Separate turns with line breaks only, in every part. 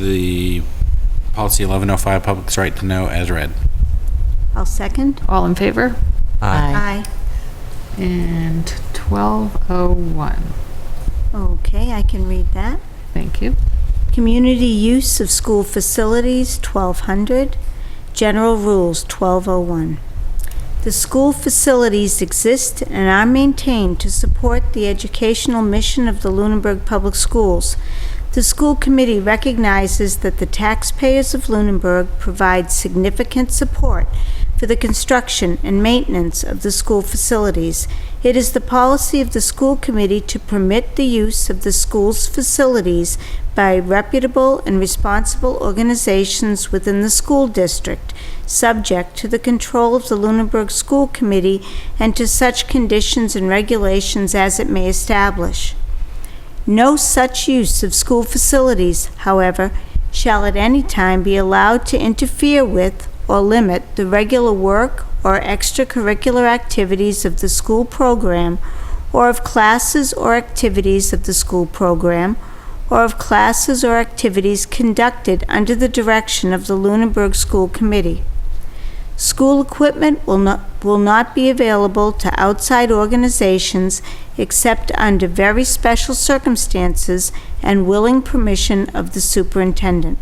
the policy 1105, public's right to know, as read.
I'll second.
All in favor?
Aye.
And 1201,
Okay, I can read that.
thank you.
Community use of school facilities, 1200. General rules, 1201. The school facilities exist and are maintained to support the educational mission of the Lunenburg Public Schools. The school committee recognizes that the taxpayers of Lunenburg provide significant support for the construction and maintenance of the school facilities. It is the policy of the school committee to permit the use of the school's facilities by reputable and responsible organizations within the school district, subject to the control of the Lunenburg School Committee and to such conditions and regulations as it may establish. No such use of school facilities, however, shall at any time be allowed to interfere with or limit the regular work or extracurricular activities of the school program or of classes or activities of the school program or of classes or activities conducted under the direction of the Lunenburg School Committee. School equipment will not, will not be available to outside organizations except under very special circumstances and willing permission of the superintendent.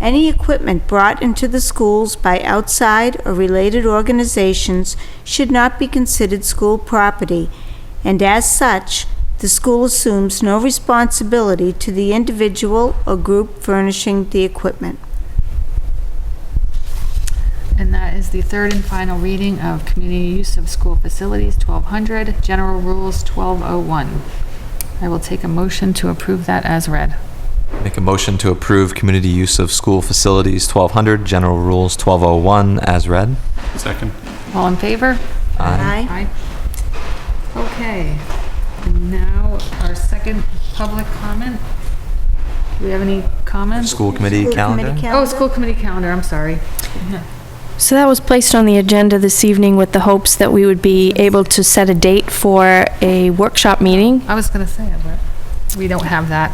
Any equipment brought into the schools by outside or related organizations should not be considered school property, and as such, the school assumes no responsibility to the individual or group furnishing the equipment.
And that is the third and final reading of Community Use of School Facilities 1200, General Rules 1201. I will take a motion to approve that as read.
Make a motion to approve community use of school facilities 1200, general rules 1201 as read. Uh,
Second.
All in favor?
Aye.
Aye. Okay, and now our second public comment. Do we have any comments?
School committee
School
calendar?
committee
Oh, school committee calendar, I'm sorry.
So that was placed on the agenda this evening with the hopes that we would be able to set a date for a workshop meeting.
I was gonna say it, but we don't have that.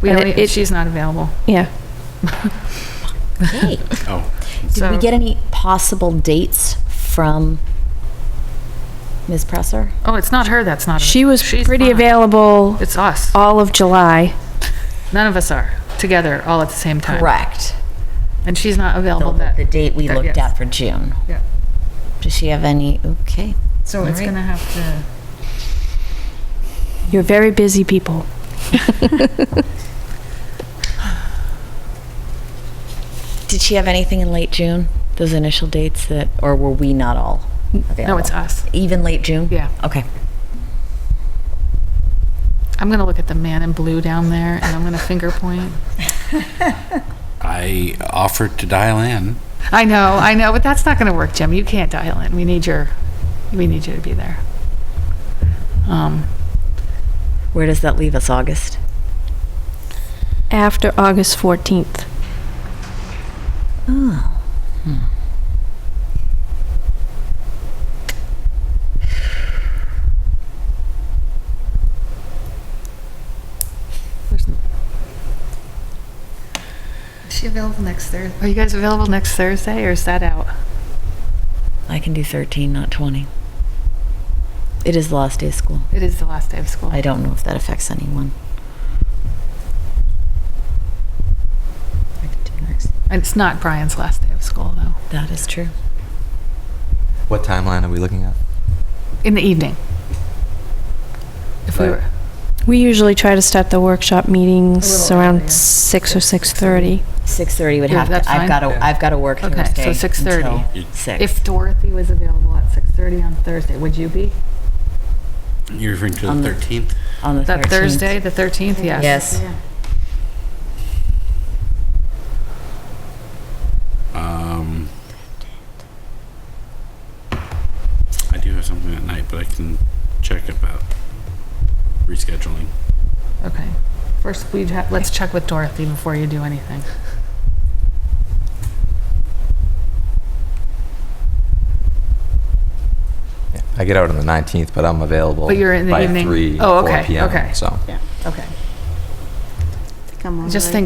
We
And
only,
it-
she's not available.
Yeah.
Hey,
Oh,
did we
So-
get any possible dates from Ms. Presser?
Oh, it's not her that's not.
She was
she's
pretty
fine.
available
It's us.
all of July.
None of us are together all at the same time.
Correct.
And she's not available
The
Uh, that.
the date we
that-
looked
yes.
at for June.
Yeah.
Does she have any? Okay.
So it's
Alright.
gonna have to.
You're very busy people.
Did she have anything in late June? Those initial dates that, or were we not all available?
No, it's us.
Even late June?
Yeah.
Okay.
I'm gonna look at the man in blue down there and I'm gonna finger point.
I offered to dial in.
I know, I know, but that's not gonna work, Jim. You can't dial in. We need your, we need you to be there. Um,
Where does that leave us, August?
After August 14th.
Is she available next Thursday? Are you guys available next Thursday or is that out?
I can do 13, not 20. It is the last day of school.
It is the last day of school.
I don't know if that affects anyone. I could do next.
And It's not Brian's last day of school though.
That is true.
What timeline are we looking at?
In the evening. If we
Right.
were,
We usually try to start the workshop meetings
little earlier.
around 6 or 6:30.
6:30 would
Yeah,
have
that's
to,
fine.
I've got to,
Yeah.
I've got to work
Okay, so
Thursday.
6:30.
You-
Until 6.
if Dorothy was available at 6:30 on Thursday, would you be?
You're referring to
Um,
the 13th?
On the 13th.
That Thursday, the 13th, yes.
Yes.
Um, I do have something at night, but I can check about rescheduling.
Okay. First, we'd have, let's check with Dorothy before you do anything.
I get out on the 19th, but I'm available
But you're in the
by
evening?
3,
Oh,
4
okay,
p.m.,
okay.
so.
Okay.
I think I'm all
Just
right.
think